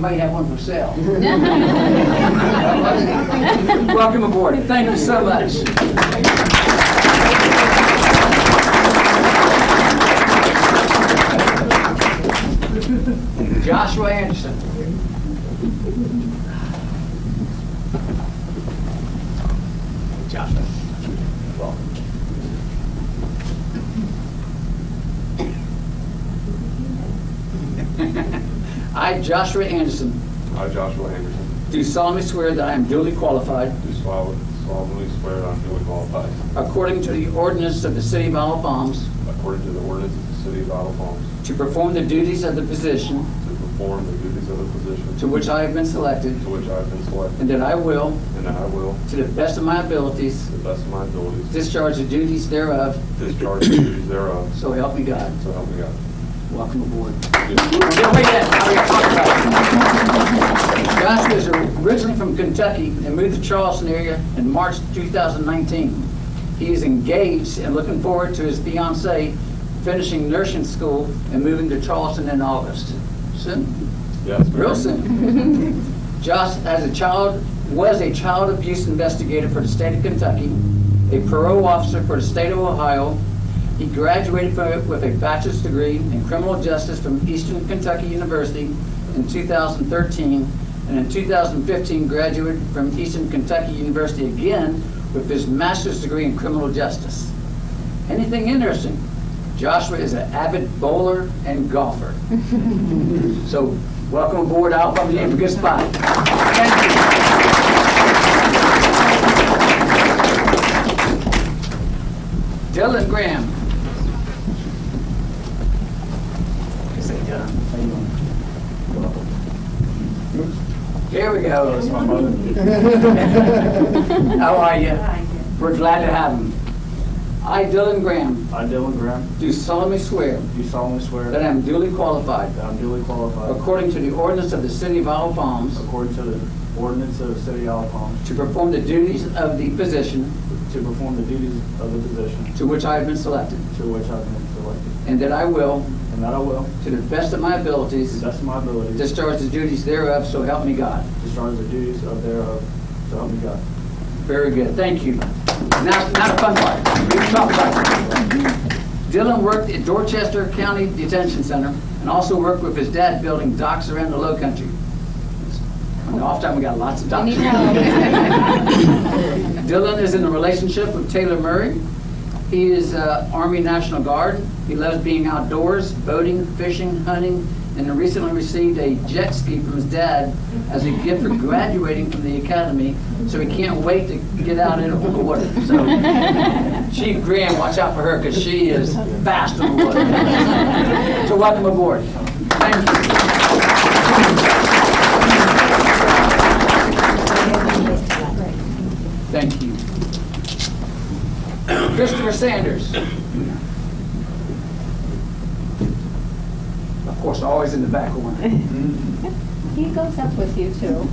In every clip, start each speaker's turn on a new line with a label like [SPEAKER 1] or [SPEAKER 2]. [SPEAKER 1] Might have one for sale.
[SPEAKER 2] Thank
[SPEAKER 1] Welcome aboard. Thank you so much. Joshua Anderson. Joshua. welcome. I, Joshua Anderson,
[SPEAKER 3] I, Joshua Anderson,
[SPEAKER 1] do solemnly swear that I am duly qualified
[SPEAKER 3] do solemnly swear I'm duly qualified,
[SPEAKER 1] According to the ordinance of the City of Isle of Palms,
[SPEAKER 3] according to the ordinance of the City of Idle Palms,
[SPEAKER 1] to perform the duties of the position
[SPEAKER 3] to perform the duties of the position
[SPEAKER 1] to which I have been selected,
[SPEAKER 3] to which I have been selected,
[SPEAKER 1] and that I will,
[SPEAKER 3] and that I will,
[SPEAKER 1] to the best of my abilities,
[SPEAKER 3] to the best of my abilities,
[SPEAKER 1] discharge the duties thereof,
[SPEAKER 3] discharge the duties thereof,
[SPEAKER 1] so help me God.
[SPEAKER 3] so help me God.
[SPEAKER 1] Welcome aboard.
[SPEAKER 3] Thank you.
[SPEAKER 1] Yeah, wait a minute. I already talked about it. Joshua is originally from Kentucky and moved to Charleston area in March 2019. He is engaged and looking forward to his fiancee finishing nursing school and moving to Charleston in August. Soon.
[SPEAKER 3] Yes, ma'am.
[SPEAKER 1] Real soon. Josh, as a child, was a child abuse investigator for the state of Kentucky, a parole officer for the state of Ohio. He graduated from- with a bachelor's degree in criminal justice from Eastern Kentucky University in 2013, and in 2015 graduated from Eastern Kentucky University again with his master's degree in criminal justice. Anything interesting? Joshua is an avid bowler and golfer. So welcome aboard Out from the Good Spot. Thank you. Dylan Graham. Here we go. How are you? We're glad to have him. I, Dylan Graham,
[SPEAKER 4] I, Dylan Graham,
[SPEAKER 1] do solemnly swear
[SPEAKER 4] do solemnly swear
[SPEAKER 1] that I
[SPEAKER 4] that
[SPEAKER 1] am duly qualified,
[SPEAKER 4] I'm duly qualified,
[SPEAKER 1] according to the ordinance of the City of Isle of Palms,
[SPEAKER 4] according to the ordinance of the City of Isle Palms,
[SPEAKER 1] To perform the duties of the position
[SPEAKER 4] to perform the duties of the position
[SPEAKER 1] to which I have been selected,
[SPEAKER 4] to which I've been selected,
[SPEAKER 1] and that I will,
[SPEAKER 4] and that I will,
[SPEAKER 1] to the best of my
[SPEAKER 4] to
[SPEAKER 1] abilities,
[SPEAKER 4] the best of my ability,
[SPEAKER 1] discharge the duties thereof, so help me God.
[SPEAKER 4] discharge the duties of thereof, so help me God.
[SPEAKER 1] Very good, thank you. Now, now the fun part. We can talk about it. Dylan worked at Dorchester County Detention Center and also worked with his dad building docks around the low country. On the off time, we got lots of docks.
[SPEAKER 5] We need help.
[SPEAKER 1] Dylan is in a relationship with Taylor Murray. He is uh, Army National Guard. He loves being outdoors, boating, fishing, hunting, and recently received a jet ski from his dad as a gift for graduating from the academy, so he can't wait to get out into the water. So Chief Graham, watch out for her, because she is fast on the water. So welcome aboard. Thank you. Thank you. Christopher Sanders. Of course, always in the back one.
[SPEAKER 5] He goes up with you too.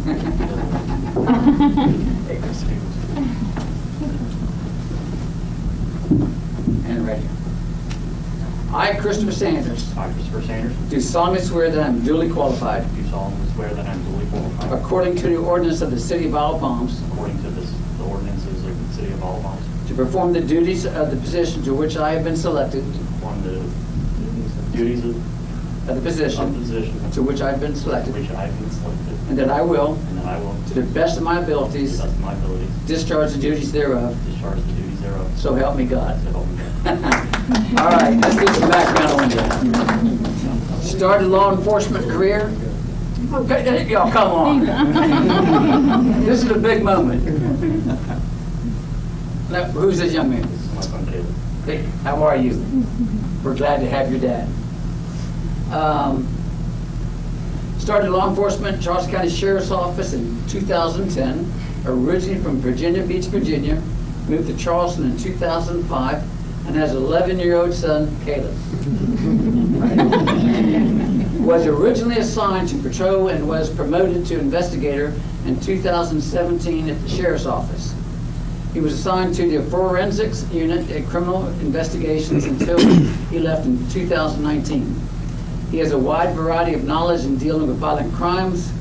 [SPEAKER 1] And right here. I, Christopher Sanders,
[SPEAKER 6] I, Christopher Sanders,
[SPEAKER 1] do solemnly swear that I am duly qualified,
[SPEAKER 6] do solemnly swear that I am duly qualified,
[SPEAKER 1] according to the ordinance of the City of Isle of Palms,
[SPEAKER 6] according to this- the ordinances of the City of Isle of Palms,
[SPEAKER 1] to perform the duties of the position to which I have been selected,
[SPEAKER 6] perform the duties of
[SPEAKER 1] of the
[SPEAKER 6] of
[SPEAKER 1] position
[SPEAKER 6] position
[SPEAKER 1] to which I have been
[SPEAKER 6] to
[SPEAKER 1] selected,
[SPEAKER 6] which I have been selected,
[SPEAKER 1] and that I will,
[SPEAKER 6] and that I will,
[SPEAKER 1] to
[SPEAKER 6] to
[SPEAKER 1] the best of my
[SPEAKER 6] the
[SPEAKER 1] abilities,
[SPEAKER 6] best of my abilities,
[SPEAKER 1] discharge the duties thereof,
[SPEAKER 6] discharge the duties thereof,
[SPEAKER 1] so help me God.
[SPEAKER 6] so help me God.
[SPEAKER 1] All right, let's get some background on that. Started law enforcement career. Okay, y'all, come on. This is a big moment. Now, who's this young man?
[SPEAKER 6] This is my son Caleb.
[SPEAKER 1] Hey, How are you? We're glad to have your dad. Um, Started law enforcement, Charles County Sheriff's Office in 2010, originally from Virginia Beach, Virginia, moved to Charleston in 2005, and has an 11-year-old son, Caleb. Was originally assigned to patrol and was promoted to investigator in 2017 at the Sheriff's Office. He was assigned to the Forensics Unit at Criminal Investigations until he left in 2019. He has a wide variety of knowledge in dealing with violent crimes,